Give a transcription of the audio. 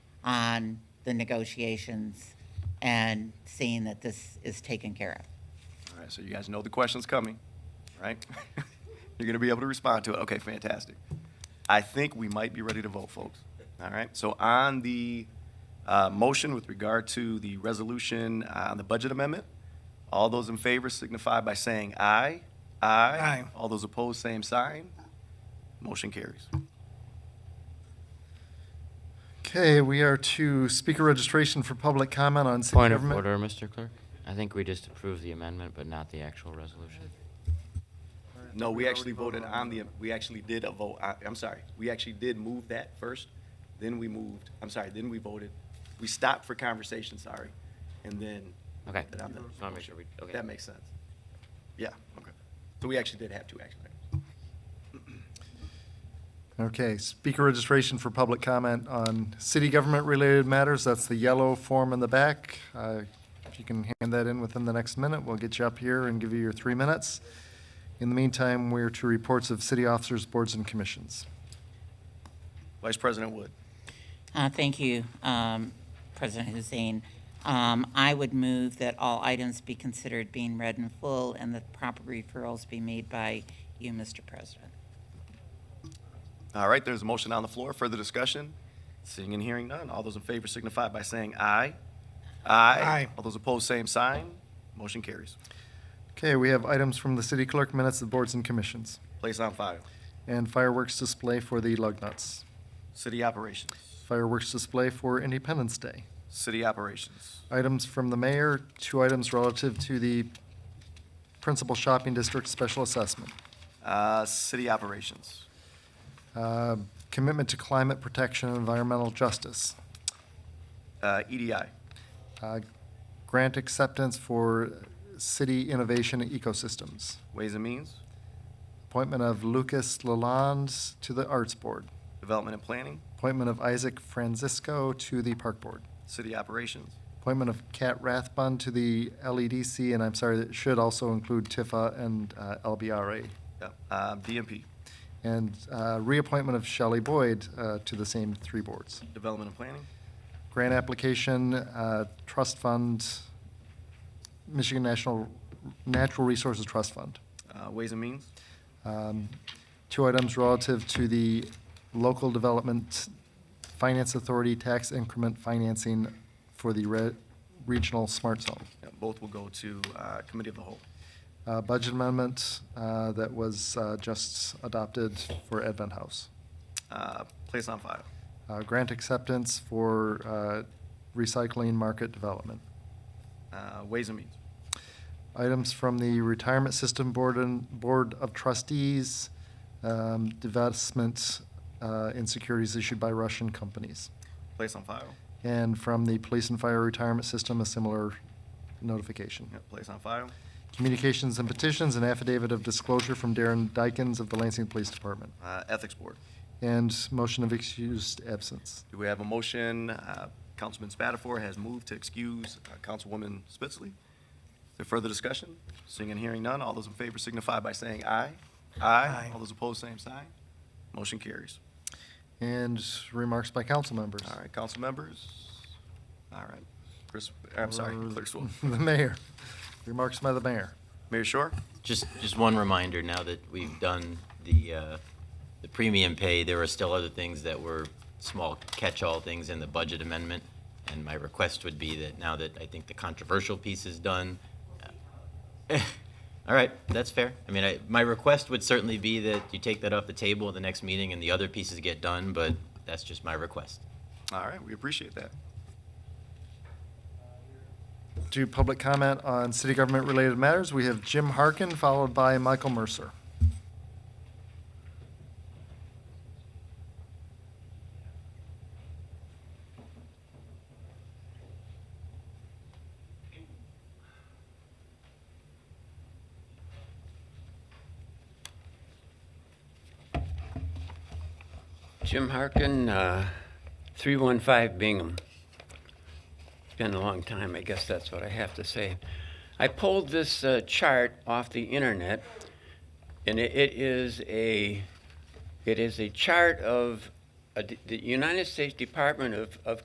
on the negotiations and seeing that this is taken care of. All right, so you guys know the question's coming, right? You're going to be able to respond to it. Okay, fantastic. I think we might be ready to vote, folks. All right, so on the uh, motion with regard to the resolution uh, on the budget amendment, all those in favor signify by saying aye. Aye. Aye. All those opposed, same sign. Motion carries. Okay, we are to speaker registration for public comment on city Point of government. order, Mr. Clerk. I think we just approved the amendment, but not the actual resolution. No, we actually voted on the, we actually did a vote, I, I'm sorry, we actually did move that first, then we moved, I'm sorry, then we voted. We stopped for conversation, sorry, and then. Okay. That I'm- Just want to make sure we, okay. That makes sense. Yeah, okay. So we actually did have two action items. Okay, speaker registration for public comment on city government-related matters. That's the yellow form in the back. Uh, If you can hand that in within the next minute, we'll get you up here and give you your three minutes. In the meantime, we're to reports of city officers, boards, and commissions. Vice President Wood. Uh, Thank you, um, President Hussein. Um, I would move that all items be considered being read in full and that proper referrals be made by you, Mr. President. All right, there's a motion on the floor, further discussion? Seeing and hearing none, all those in favor signify by saying aye. Aye. All those opposed, same sign, motion carries. Okay, we have items from the city clerk, minutes of boards and commissions, Place on file. and fireworks display for the lug nuts. City operations, Fireworks display for Independence Day. city operations. Items from the mayor, two items relative to the principal shopping district special assessment. Uh, City operations. Uh, Commitment to climate protection and environmental justice. Uh, EDI. Uh, Grant acceptance for city innovation ecosystems. Ways and Means. Appointment of Lucas Lalonde to the Arts Board. Development and Planning. Appointment of Isaac Francisco to the Park Board. City operations. Appointment of Kat Rathbun to the LEDC, and I'm sorry, that should also include Tifa and uh, LBRA. Yep. Uh, DMP. And uh, reappointment of Shelley Boyd uh, to the same three boards. Development and Planning. Grant application, uh, trust fund, Michigan National Natural Resources Trust Fund. Uh, Ways and Means. Um, Two items relative to the local development finance authority tax increment financing for the re- regional smart zone. Yep, Both will go to uh, Committee of the Whole. Uh, Budget amendment uh, that was uh, just adopted for Advent House. Uh, Place on file. Uh, Grant acceptance for uh, recycling market development. Uh, Ways and Means. Items from the Retirement System Board and Board of Trustees, um, divestment uh, in securities issued by Russian companies. Place on file. And from the Police and Fire Retirement System, a similar notification. Yep, Place on file. Communications and petitions, an affidavit of disclosure from Darren Dykens of the Lansing Police Department. Uh, Ethics Board. And motion of excused absence. Do we have a motion? Uh, Councilman Spatafor has moved to excuse uh, Councilwoman Spitzley. Is there further discussion? Seeing and hearing none, all those in favor signify by saying aye. Aye. All those opposed, same sign. Motion carries. And remarks by council members. All right, council members. All right, Chris, I'm sorry, Clerk Swoop. Uh, The mayor. Remarks by the mayor. Mayor Shore? Just, just one reminder, now that we've done the, uh, the premium pay, there are still other things that were small catch-all things in the budget amendment. And my request would be that now that I think the controversial piece is done, eh, all right, that's fair. I mean, I, my request would certainly be that you take that off the table at the next meeting and the other pieces get done, but that's just my request. All right, we appreciate that. To public comment on city government-related matters, we have Jim Harkin, followed by Michael Mercer. Jim Harkin, uh, 315 Bingham. Been a long time, I guess that's what I have to say. I pulled this uh, chart off the internet, and it- it is uh, a, it is a chart of a d- the United States Department of of